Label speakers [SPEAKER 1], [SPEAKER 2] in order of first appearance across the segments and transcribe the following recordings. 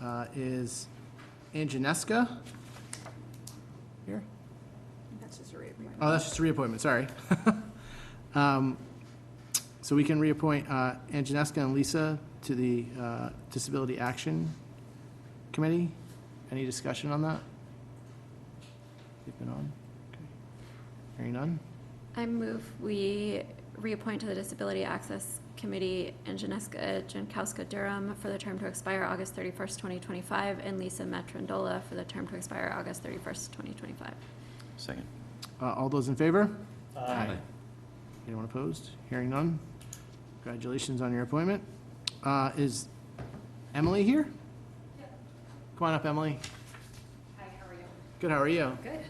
[SPEAKER 1] uh, is Angineska. Here?
[SPEAKER 2] That's just a reappointment.
[SPEAKER 1] Oh, that's just a reappointment, sorry. Um, So we can reappoint uh, Angineska and Lisa to the uh, Disability Action Committee. Any discussion on that? They've been on? Okay. Hearing none?
[SPEAKER 3] I move we reappoint to the Disability Access Committee Angeneska Jankowska Durham for the term to expire August thirty-first, twenty twenty-five, and Lisa Matrandola for the term to expire August thirty-first, twenty twenty-five.
[SPEAKER 4] Second.
[SPEAKER 1] Uh, All those in favor? Anyone opposed? Hearing none? Congratulations on your appointment. Uh, Is Emily here? Come on up, Emily. Hi, how are you? Good, how are you?
[SPEAKER 2] Good.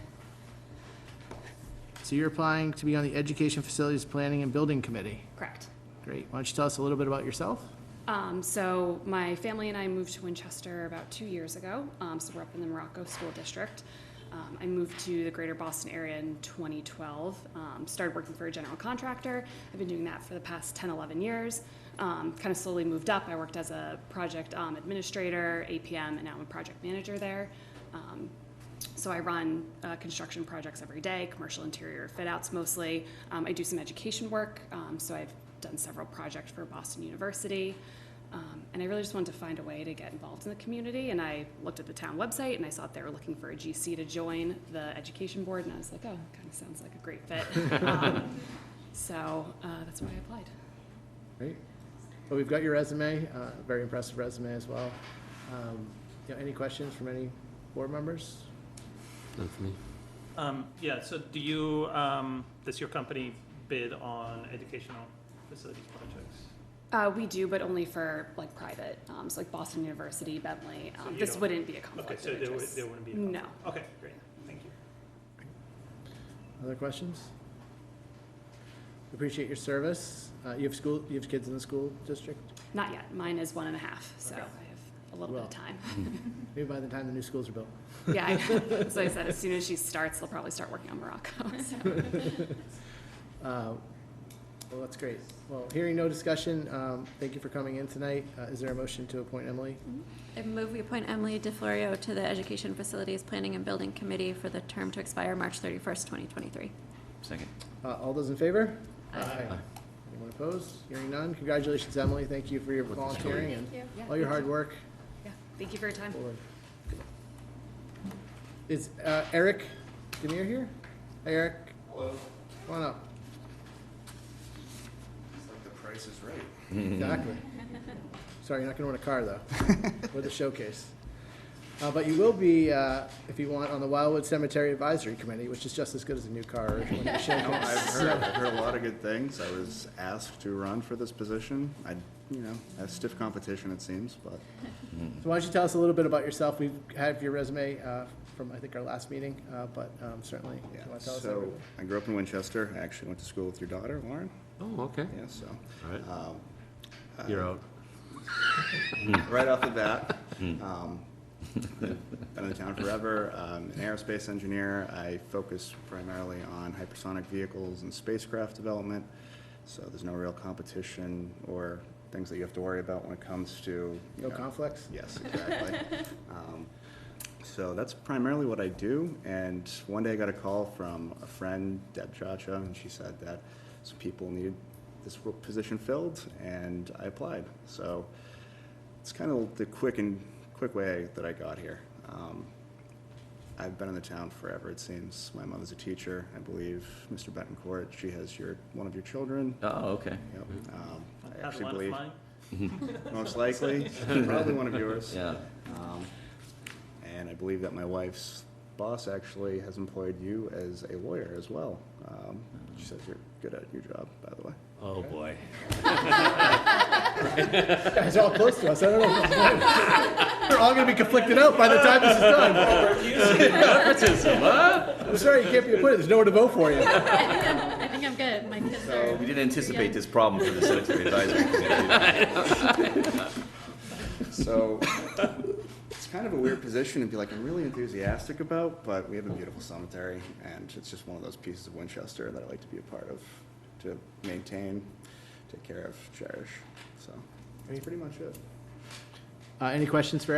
[SPEAKER 1] So you're applying to be on the Education Facilities Planning and Building Committee.
[SPEAKER 5] Correct.
[SPEAKER 1] Great. Why don't you tell us a little bit about yourself?
[SPEAKER 5] Um, so my family and I moved to Winchester about two years ago. Um, so we're up in the Morocco School District. Um, I moved to the greater Boston area in 2012. Um, started working for a general contractor. I've been doing that for the past 10, 11 years. Um, kind of slowly moved up. I worked as a project um, administrator, APM, and now I'm a project manager there. Um, so I run uh, construction projects every day, commercial interior fit outs mostly. Um, I do some education work, um, so I've done several projects for Boston University. Um, and I really just wanted to find a way to get involved in the community. And I looked at the town website and I saw that they were looking for a GC to join the education board. And I was like, oh, kind of sounds like a great fit. um, so uh, that's why I applied.
[SPEAKER 1] Great. Well, we've got your resume, uh, very impressive resume as well. Um, you know, Any questions from any board members?
[SPEAKER 4] None for me.
[SPEAKER 6] Um, yeah, so do you, um, does your company bid on educational facilities projects?
[SPEAKER 5] Uh, we do, but only for like private, um, so like Boston University, Bentley.
[SPEAKER 6] So
[SPEAKER 5] Um,
[SPEAKER 6] you
[SPEAKER 5] this
[SPEAKER 6] don't-
[SPEAKER 5] wouldn't be a conflict
[SPEAKER 6] Okay, so
[SPEAKER 5] of
[SPEAKER 6] there would,
[SPEAKER 5] interest.
[SPEAKER 6] there wouldn't be a
[SPEAKER 5] No.
[SPEAKER 6] conflict? Okay, great, thank you.
[SPEAKER 1] Other questions? Appreciate your service. Uh, You have school, you have kids in the school district?
[SPEAKER 5] Not yet. Mine is one and a half, so
[SPEAKER 1] Okay.
[SPEAKER 5] I have a little bit
[SPEAKER 1] Well.
[SPEAKER 5] of time.
[SPEAKER 1] Maybe by the time the new schools are built.
[SPEAKER 5] Yeah, I, so I said, as soon as she starts, they'll probably start working on Morocco. So.
[SPEAKER 1] Uh, Well, that's great. Well, hearing no discussion, um, thank you for coming in tonight. Uh, Is there a motion to appoint Emily?
[SPEAKER 3] I move we appoint Emily DeFlorio to the Education Facilities Planning and Building Committee for the term to expire March thirty-first, twenty twenty-three.
[SPEAKER 4] Second.
[SPEAKER 1] Uh, All those in favor?
[SPEAKER 3] Aye.
[SPEAKER 1] Anyone opposed? Hearing none. Congratulations, Emily. Thank you for your volunteering and
[SPEAKER 5] Yeah,
[SPEAKER 1] all your
[SPEAKER 5] thank
[SPEAKER 1] hard
[SPEAKER 5] you.
[SPEAKER 1] work.
[SPEAKER 5] Yeah, thank you for your time.
[SPEAKER 1] forward. Is uh, Eric Demir here? Hey, Eric. Hello. Come on up. It's like the price is right. Exactly. Sorry, you're not gonna win a car, though, or the showcase. Uh, But you will be, uh, if you want, on the Wildwood Cemetery Advisory Committee, which is just as good as a new car or winning a
[SPEAKER 7] No, I've
[SPEAKER 1] showcase.
[SPEAKER 7] heard, I've heard a lot of good things. I was asked to run for this position. I, you know, I have stiff competition, it seems, but
[SPEAKER 1] So why don't you tell us a little bit about yourself? We've had your resume uh, from, I think, our last meeting, uh, but um, certainly, if you
[SPEAKER 7] yeah.
[SPEAKER 1] want to tell us?
[SPEAKER 7] So
[SPEAKER 1] everything.
[SPEAKER 7] I grew up in Winchester. I actually went to school with your daughter, Lauren.
[SPEAKER 4] Oh, okay.
[SPEAKER 7] Yeah, so,
[SPEAKER 4] All right.
[SPEAKER 7] um, uh,
[SPEAKER 4] You're out.
[SPEAKER 7] right off the bat.
[SPEAKER 4] Hmm.
[SPEAKER 7] Um, I've Been in town forever, I'm an aerospace engineer, I focus primarily on hypersonic vehicles and spacecraft development, so there's no real competition or things that you have to worry about when it comes to. you
[SPEAKER 1] No
[SPEAKER 7] know-
[SPEAKER 1] conflicts?
[SPEAKER 7] Yes, exactly. Um, So that's primarily what I do, and one day I got a call from a friend, Deb Chacha, and she said that some people need this position filled, and I applied. So it's kind of the quick and, quick way that I got here. Um, I've been in the town forever, it seems. My mother's a teacher, I believe. Mr. Betancourt, she has your, one of your children.
[SPEAKER 4] Oh, okay.
[SPEAKER 7] Yep. Um,
[SPEAKER 6] Had
[SPEAKER 7] I
[SPEAKER 6] one
[SPEAKER 7] actually
[SPEAKER 6] of
[SPEAKER 7] believe,
[SPEAKER 6] mine.
[SPEAKER 7] most likely, probably one of yours.
[SPEAKER 4] Yeah.
[SPEAKER 7] Um, And I believe that my wife's boss actually has employed you as a lawyer as well. Um, She says you're good at your job, by the way.
[SPEAKER 4] Oh, boy.
[SPEAKER 1] It's all close to us. I don't know. We're all going to be conflicted out by the time this is done. I'm sorry, you can't be appointed. There's nowhere to vote for you.
[SPEAKER 3] I think I'm good. My kids
[SPEAKER 7] So-
[SPEAKER 3] are.
[SPEAKER 7] We
[SPEAKER 4] We didn't anticipate this problem for the cemetery advisory committee.
[SPEAKER 7] So it's kind of a weird position to be like, I'm really enthusiastic about, but we have a beautiful cemetery, and it's just one of those pieces of Winchester that I like to be a part of, to maintain, take care of, cherish. So that's pretty much it.
[SPEAKER 1] Uh, any questions for